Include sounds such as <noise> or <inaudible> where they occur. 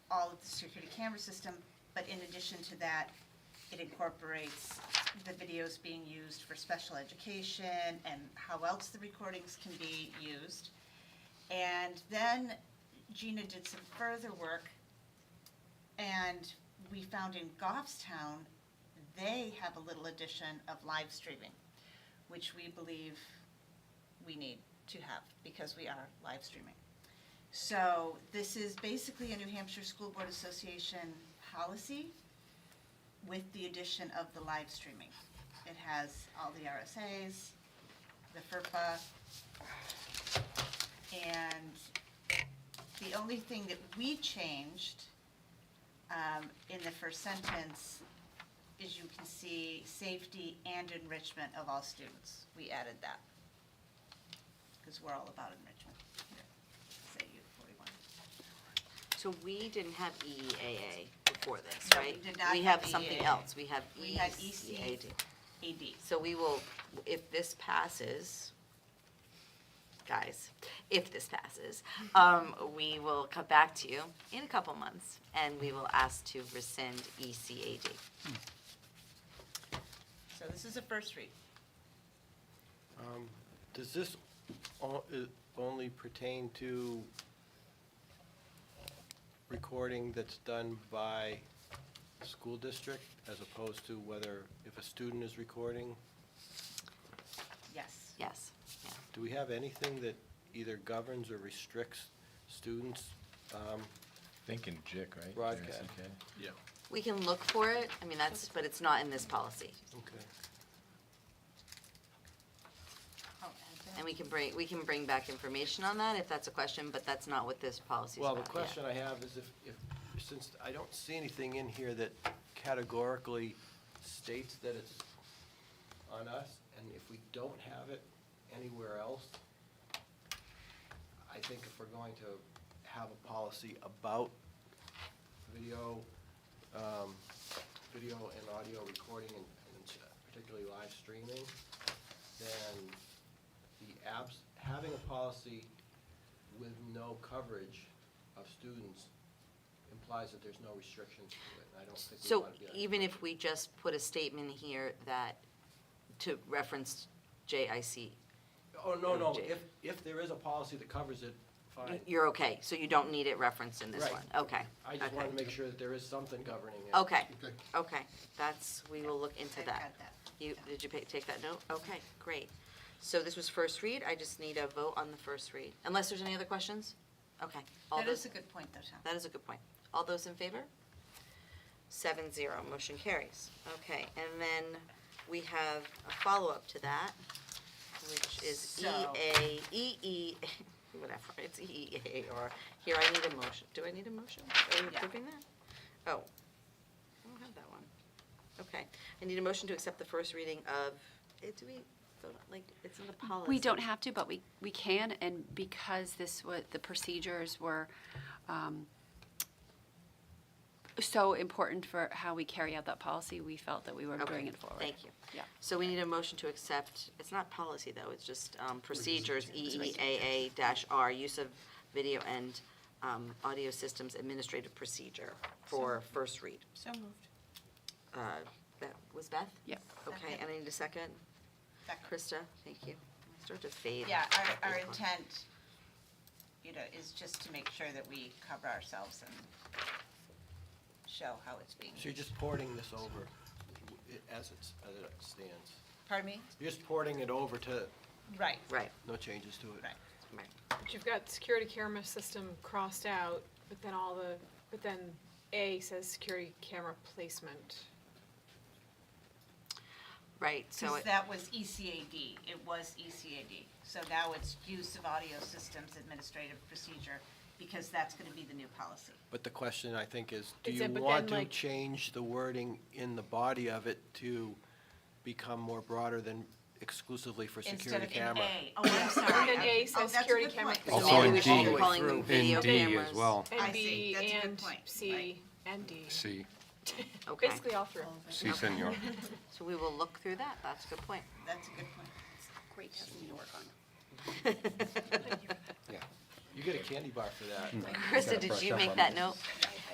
all of the security camera system, but in addition to that, it incorporates the videos being used for special education and how else the recordings can be used. And then Gina did some further work, and we found in Goffstown, they have a little addition of live streaming, which we believe we need to have, because we are live streaming. So this is basically a New Hampshire School Board Association policy with the addition of the live streaming. It has all the RSAs, the FERPA, and the only thing that we changed um, in the first sentence is you can see safety and enrichment of all students. We added that, because we're all about enrichment here, say U forty-one. So we didn't have E EEAA before this, No, we right? did not We have E have something EEAA. else, we have E We had E ECAD. AD. So we will, if this passes, guys, if this passes, um, we will come back to you in a couple months, and we will ask to rescind E ECAD. So this is a first read. Um, Does this o- i- only pertain to recording that's done by the school district as opposed to whether, if a student is recording? Yes. Yes, yeah. Do we have anything that either governs or restricts students? Um, Thinking JIC, right? Broadcast. JICK. We can look for it, I mean, that's, but it's not in this policy. Okay. I'll add that. And we can bring, we can bring back information on that if that's a question, but that's not what this policy is Well, about. the yeah. question I have is if, if, since I don't see anything in here that categorically states that it's on us, and if we don't have it anywhere else, I think if we're going to have a policy about video, um, video and audio recording and and particularly live streaming, then the abs, having a policy with no coverage of students implies that there's no restrictions to it, and I don't think we So want to be like. even if we just put a statement here that, to reference JIC, e- Oh, no, no, Jake. if, if there is a policy that covers it, fine. you're okay, so you don't need it referenced in this Right. one? Okay, I just okay. want to make sure that there is something governing it. Okay, Okay. okay, that's, we will look into I've that. got that. You, did you pa- take that note? Okay, great. So this was first read, I just need a vote on the first read, unless there's any other questions? Okay. All That those- is a good point, though, Tom. That is a good point. All those in favor? Seven zero, motion carries. Okay, and then we have a follow-up to that, which is E So- EA, EE, <laughs> whatever, it's EEA, or, here, I need a motion. Do I need a motion? Are you Yeah. approving that? Oh, I don't have that one. Okay, I need a motion to accept the first reading of, eh, do we, vote on- like, it's not a policy. We don't have to, but we, we can, and because this was, the procedures were um, so important for how we carry out that policy, we felt that we were Okay, bringing it forward. Thank you. Yeah. So we need a motion to accept, it's not policy, though, it's just um, procedures, EEAA dash R, use of video and um, audio systems administrative procedure for first read. So moved. Uh, That was Beth? Yep. Okay, and I need a second. Second. Krista, thank you. I Start to fade. Yeah, our, our These ones. intent, you know, is just to make sure that we cover ourselves and show how it's being So you're just porting this over i- as it's, as it stands. Pardon me? You're just porting it over to, Right. Right, no changes to it. Right. right. But you've got security camera system crossed out, but then all the, but then A says security camera placement. Right, so, Because it- that was E ECAD, it was E ECAD. So now it's use of audio systems administrative procedure, because that's gonna be the new policy. But the question, I think, is do Is you it- but want then, to like- change the wording in the body of it to become more broader than exclusively for Instead security of in camera? A, oh, I'm sorry. And I'm- then A oh, says that's a security good camera. point. so Also maybe in we should D. be calling them video In D as cameras. well. I And see, B that's a good and point, C right. and D. <laughs> C, Okay, Basically all through. C senor. so we will look through that, that's a good point. That's a good point. Great, something to work on. You get a candy bar for that. Krista, did you make that note? Yeah.